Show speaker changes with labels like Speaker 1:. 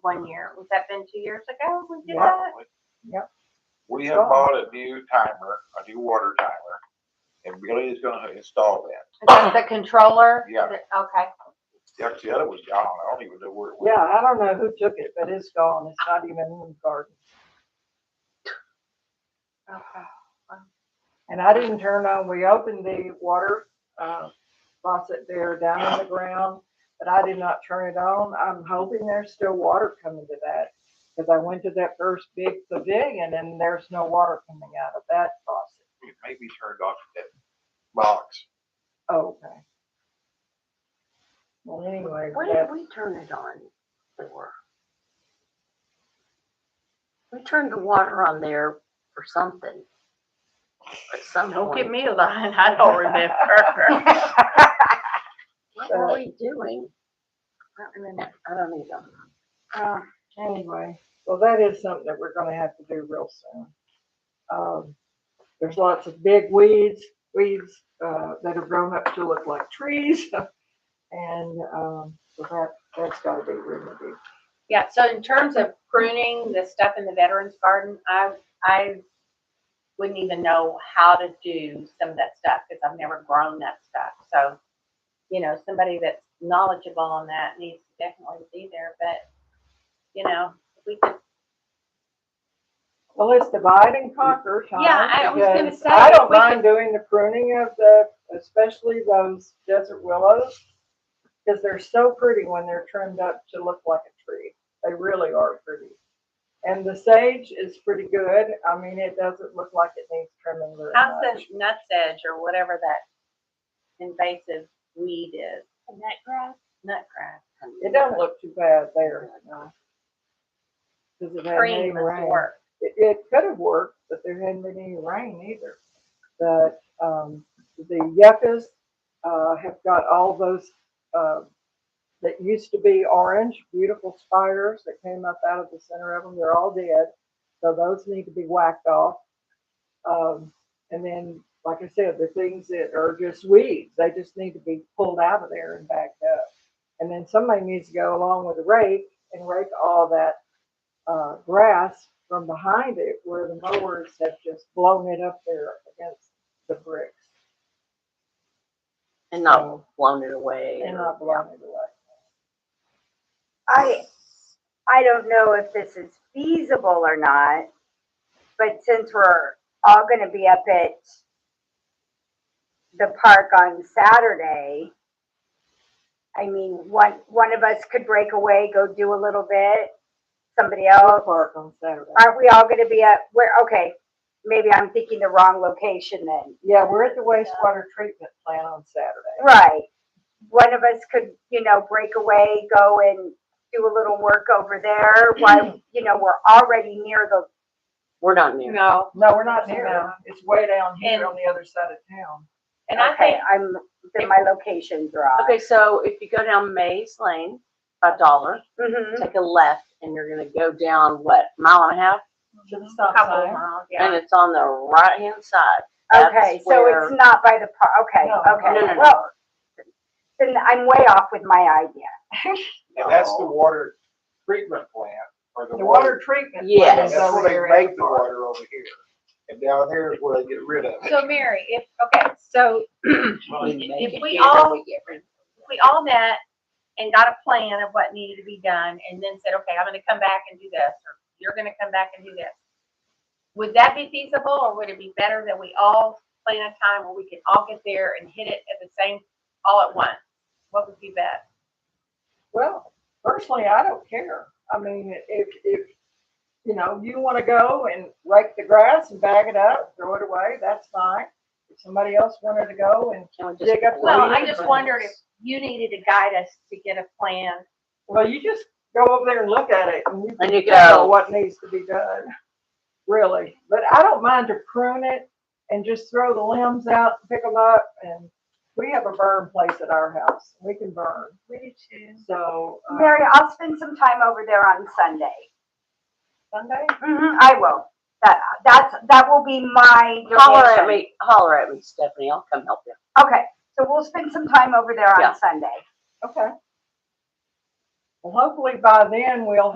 Speaker 1: one year. Was that been two years ago we did that?
Speaker 2: Probably.
Speaker 3: Yep.
Speaker 2: We have bought a new timer, a new water timer, and Billy is gonna install that.
Speaker 1: Is that the controller?
Speaker 2: Yeah.
Speaker 1: Okay.
Speaker 2: The- The other was gone, I don't even know where it
Speaker 3: Yeah,
Speaker 2: went.
Speaker 3: I don't know who took it, but it's gone. It's not even in the garden.
Speaker 1: Okay.
Speaker 3: And I didn't turn on, we opened the water, uh, faucet there down on the ground, but I did not turn it on. I'm hoping there's still water coming to that. Cause I went to that first big pavilion and there's no water coming out of that faucet.
Speaker 2: It may be turned off that box.
Speaker 3: Oh, Okay. Well, anyway,
Speaker 4: What
Speaker 3: that-
Speaker 4: did we turn it on for? We turned the water on there for something. At some
Speaker 5: Don't
Speaker 4: point,
Speaker 5: give me a line, I don't remember.
Speaker 4: what were we doing? I don't remember. I don't either.
Speaker 5: Uh,
Speaker 1: Um,
Speaker 3: anyway, well, that is something that we're gonna have to do real soon. Um, there's lots of big weeds, weeds, uh, that have grown up to look like trees. And, um, so that, that's gotta be remedied.
Speaker 1: Yeah, so in terms of pruning the stuff in the veterans garden, I, I wouldn't even know how to do some of that stuff because I've never grown that stuff. So, you know, somebody that's knowledgeable on that needs to definitely be there, but, you know, we could,
Speaker 3: Well, it's divide and conquer, Tom.
Speaker 1: Yeah, I was gonna
Speaker 3: because
Speaker 1: say,
Speaker 3: I
Speaker 1: if
Speaker 3: don't
Speaker 1: we
Speaker 3: mind
Speaker 1: could-
Speaker 3: doing the pruning of the, especially those desert willows. Cause they're so pretty when they're trimmed up to look like a tree. They really are pretty. And the sage is pretty good. I mean, it doesn't look like it needs trimming very
Speaker 1: how's
Speaker 3: much.
Speaker 1: the nuts edge or whatever that invasive weed is? Nutgrass? Nutgrass.
Speaker 3: It doesn't look too bad there. no. Cause it hadn't any
Speaker 1: Cream must
Speaker 3: rain.
Speaker 1: work.
Speaker 3: It, it could have worked, but there hadn't been any rain either. But, um, the yuccas, uh, have got all those, uh, that used to be orange, beautiful spires that came up out of the center of them. They're all dead. So those need to be whacked off. Um, and then, like I said, the things that are just weeds, they just need to be pulled out of there and backed up. And then somebody needs to go along with a rake and rake all that uh, grass from behind it where the mowers have just blown it up there against the bricks.
Speaker 4: And not
Speaker 3: So,
Speaker 4: blown it away.
Speaker 3: and
Speaker 4: or-
Speaker 3: not blown it away.
Speaker 6: I, I don't know if this is feasible or not, but since we're all gonna be up at the park on Saturday, I mean, one, one of us could break away, go do a little bit, somebody
Speaker 3: Dog
Speaker 6: else.
Speaker 3: park on Saturday.
Speaker 6: Aren't we all gonna be at, where, okay, maybe I'm thinking the wrong location then.
Speaker 3: Yeah, we're at the wastewater treatment plant on Saturday.
Speaker 6: Right. One of us could, you know, break away, go and do a little work over there while, you know, we're already near the
Speaker 4: We're not near.
Speaker 1: No,
Speaker 3: No, we're not near them. It's way down here
Speaker 1: And-
Speaker 3: on the other side of town.
Speaker 1: and I
Speaker 6: okay,
Speaker 1: think,
Speaker 6: I'm, then my locations are off.
Speaker 4: Okay, so if you go down Maze Lane, a dollar,
Speaker 6: Mhm.
Speaker 4: take a left and you're gonna go down, what, mile and a half?
Speaker 3: To the stop
Speaker 1: Mhm. couple of
Speaker 3: sign.
Speaker 1: miles, yeah.
Speaker 4: And it's on the right-hand side. That's
Speaker 6: Okay, so
Speaker 4: where-
Speaker 6: it's not by the par, okay,
Speaker 3: No,
Speaker 4: no, no,
Speaker 6: okay,
Speaker 4: no.
Speaker 6: well, then I'm way off with my idea.
Speaker 2: And that's the water treatment plant or the
Speaker 3: The
Speaker 2: water.
Speaker 3: water treatment. plant
Speaker 4: Yes.
Speaker 3: is
Speaker 2: That's
Speaker 3: over
Speaker 2: where
Speaker 3: there
Speaker 2: they
Speaker 3: at
Speaker 2: make
Speaker 3: the
Speaker 2: the
Speaker 3: park.
Speaker 2: water over here. And down there is where they get rid of it.
Speaker 1: So Mary, if, okay, so
Speaker 4: We
Speaker 1: If
Speaker 4: make it
Speaker 1: we
Speaker 4: here,
Speaker 1: all-
Speaker 4: we get rid of
Speaker 1: if we all met and got a plan of what needed to be done and then said, okay, I'm gonna come back and do this, or you're gonna come back and do this. Would that be feasible or would it be better that we all plan a time where we can all get there and hit it at the same, all at once? What would be best?
Speaker 3: Well, personally, I don't care. I mean, if, if, you know, you want to go and rake the grass and bag it up, throw it away, that's fine. If somebody else wanted to go and,
Speaker 4: it. Can we just
Speaker 3: dig up the
Speaker 4: blow
Speaker 1: Well,
Speaker 3: Well,
Speaker 1: I
Speaker 3: we-
Speaker 1: just wondered if you needed to guide us to get a plan.
Speaker 3: well, you just go over there and look at it and you
Speaker 4: And you
Speaker 3: figure out
Speaker 4: go.
Speaker 3: What needs to be done, really. But I don't mind to prune it and just throw the limbs out, pick them up and we have a burn place at our house. We can burn.
Speaker 1: We do too.
Speaker 3: So. um,
Speaker 6: Mary, I'll spend some time over there on Sunday.
Speaker 3: Sunday?
Speaker 6: Mhm, I will. That, that's, that will be my
Speaker 4: Holler at
Speaker 6: location.
Speaker 4: me, holler at me, Stephanie, I'll come help you.
Speaker 6: Okay, so we'll spend some time over there
Speaker 4: Yeah.
Speaker 6: on Sunday.
Speaker 3: Okay. Well, hopefully by then we'll